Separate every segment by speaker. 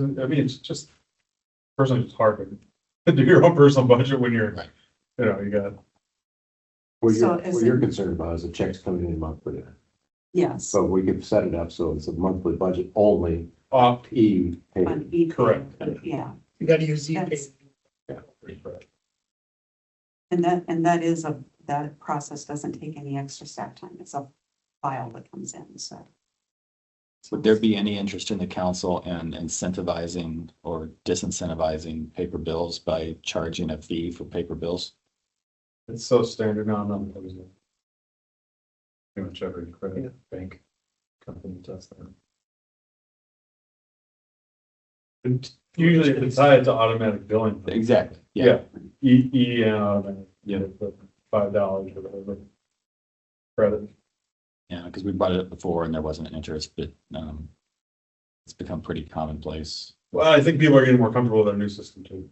Speaker 1: I mean, it's just, personally, it's hard to do your own personal budget when you're,
Speaker 2: Right.
Speaker 1: you know, you got,
Speaker 3: What you're,
Speaker 4: So is
Speaker 3: what you're
Speaker 4: it-
Speaker 3: concerned about is the checks coming in monthly.
Speaker 4: Yes,
Speaker 3: So we could set it up so it's a monthly budget only,
Speaker 1: off.
Speaker 3: E payment.
Speaker 4: on each.
Speaker 1: Correct.
Speaker 4: Yeah,
Speaker 2: You gotta use E
Speaker 4: That's-
Speaker 2: ePay.
Speaker 4: and that, and that is a, that process doesn't take any extra staff time. It's a file that comes in, so.
Speaker 5: Would there be any interest in the council in incentivizing or disincentivizing paper bills by charging a fee for paper bills?
Speaker 1: It's so standard now, I'm not. Pretty much every
Speaker 2: Yeah.
Speaker 1: credit bank company does that. And Usually if it's tied to automatic billing.
Speaker 5: Exactly.
Speaker 1: Yeah, E, E, and automatic.
Speaker 5: Yeah.
Speaker 1: the Five dollars or whatever. Credit.
Speaker 5: Yeah, because we brought it up before and there wasn't an interest, but um, it's become pretty commonplace.
Speaker 1: Well, I think people are getting more comfortable with our new system too.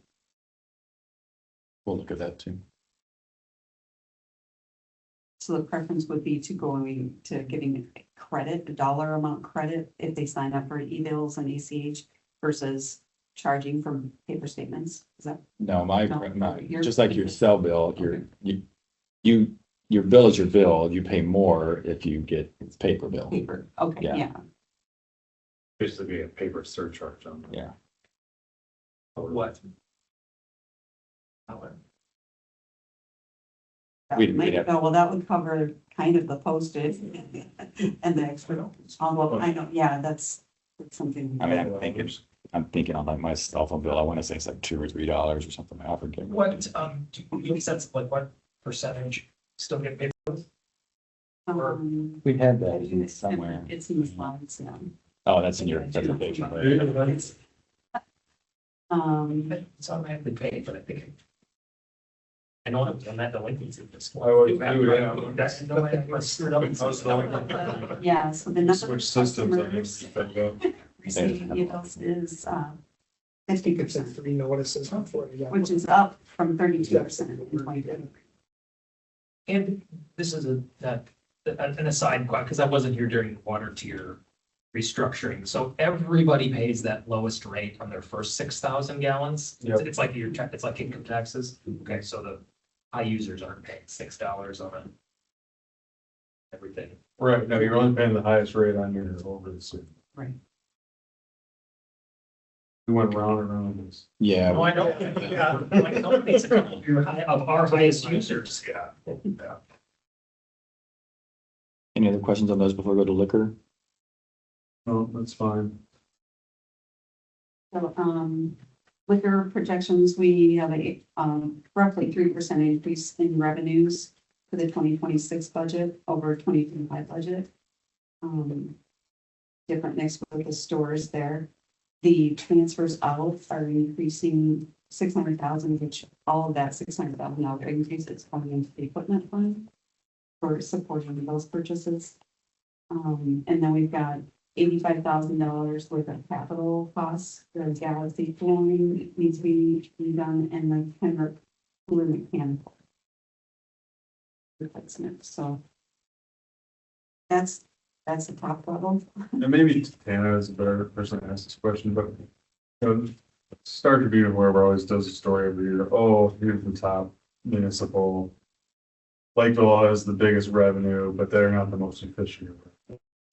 Speaker 5: We'll look at that too.
Speaker 4: So the preference would be to going to giving credit, a dollar amount credit if they sign up for e-bills and ACH versus charging from paper statements. Is that,
Speaker 5: No, my,
Speaker 4: No,
Speaker 5: my-
Speaker 4: you're-
Speaker 5: just like your cell bill, your, you, you, your bill is your bill. You pay more if you get it's paper bill.
Speaker 4: paper? Okay,
Speaker 5: Yeah.
Speaker 4: yeah.
Speaker 1: Basically be a paper surcharge on. that.
Speaker 5: Yeah.
Speaker 1: What?
Speaker 4: That
Speaker 5: We'd-
Speaker 4: might
Speaker 5: we'd have-
Speaker 4: go, well, that would cover kind of the postage and the extra envelope. Oh, I know, yeah, that's that's something.
Speaker 5: Oh. I mean, I'm thinking, I'm thinking on like my cell phone bill, I want to say it's like two or three dollars or something. I forget.
Speaker 2: What, um, do you have a sense of like what percentage still get paid?
Speaker 4: Um,
Speaker 5: We had that in
Speaker 4: It's
Speaker 5: somewhere.
Speaker 4: it's in the slides, yeah.
Speaker 5: Oh, that's in your presentation. right?
Speaker 4: Um,
Speaker 2: It's automatically paid, but I think. I know I'm on that delinquency this.
Speaker 1: I would do it, yeah.
Speaker 2: That's no way I screwed up.
Speaker 1: I was delinquent.
Speaker 4: yeah, so the number of
Speaker 1: Switch systems, I guess.
Speaker 4: customers
Speaker 1: if I go.
Speaker 4: receiving emails is, um, fifty
Speaker 6: You could say
Speaker 4: percent,
Speaker 6: three notices, not four. you got
Speaker 4: which
Speaker 6: one.
Speaker 4: is up from thirty-two percent in 2020.
Speaker 2: And this is a, that, an aside, because I wasn't here during the water tier restructuring. So everybody pays that lowest rate on their first six thousand gallons. It's-
Speaker 1: Yep.
Speaker 2: It's like your, ta- it's like income taxes. Okay, so the high users aren't paying six dollars on it. Everything.
Speaker 1: Right, no, you're only paying the highest rate on your over the suit.
Speaker 4: Right.
Speaker 1: We went round and round this.
Speaker 5: Yeah.
Speaker 2: No, I know, yeah, like, no, it's a couple of your high- of our highest users.
Speaker 1: Yeah.
Speaker 5: Any other questions on those before we go to liquor?
Speaker 1: No, Oh, that's fine.
Speaker 4: So, um, liquor projections, we have a, um, roughly three percent increase in revenues for the twenty twenty-six budget over twenty twenty-five budget. Um, different next with the stores there. The transfers out are increasing six hundred thousand, which all of that six hundred thousand dollar increase is coming into the equipment fund for supporting those purchases. Um, and then we've got eighty-five thousand dollars worth of capital costs, the galaxy flooring needs to be redone, and the Pembroke cooler mechanical. Replacement, so. That's, that's the top level.
Speaker 1: And maybe Tana is a better person to ask this question, but you know, Star Tribune, or whoever always does a story every year, oh, here's the top municipal. Lakeville has the biggest revenue, but they're not the most efficient.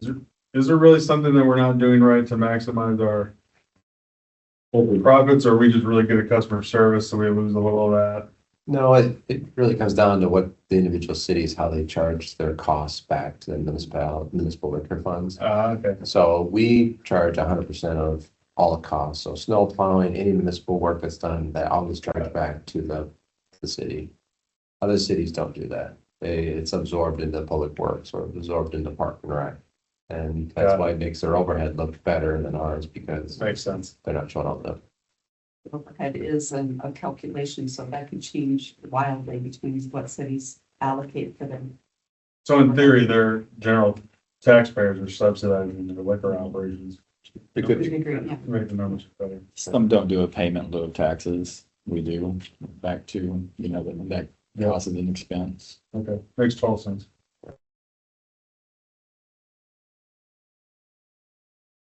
Speaker 1: Is there, is there really something that we're not doing right to maximize our profits? Or are we just really good at customer service, so we lose a little of that?
Speaker 3: No, it, it really comes down to what the individual cities, how they charge their costs back to the municipal, municipal liquor funds.
Speaker 1: Ah, okay.
Speaker 3: So we charge hundred percent of all the costs. So snow plowing, any municipal work that's done, that all is charged back to the, the city. Other cities don't do that. They, it's absorbed into public works or absorbed into park and rec. And that's
Speaker 1: Got it.
Speaker 3: why it makes their overhead look better than ours because
Speaker 1: Makes sense.
Speaker 3: they're not showing up the
Speaker 4: Overhead is an- a calculation, so that could change wildly between what cities allocate for them.
Speaker 1: So in theory, their general taxpayers are subsidizing their liquor operations,
Speaker 3: It could
Speaker 4: Would
Speaker 3: be.
Speaker 4: you agree? Yeah.
Speaker 1: make the numbers better.
Speaker 5: Some don't do a payment in lieu of taxes. We do, back to, you know, that, that cost is an expense.
Speaker 1: Okay, makes total sense.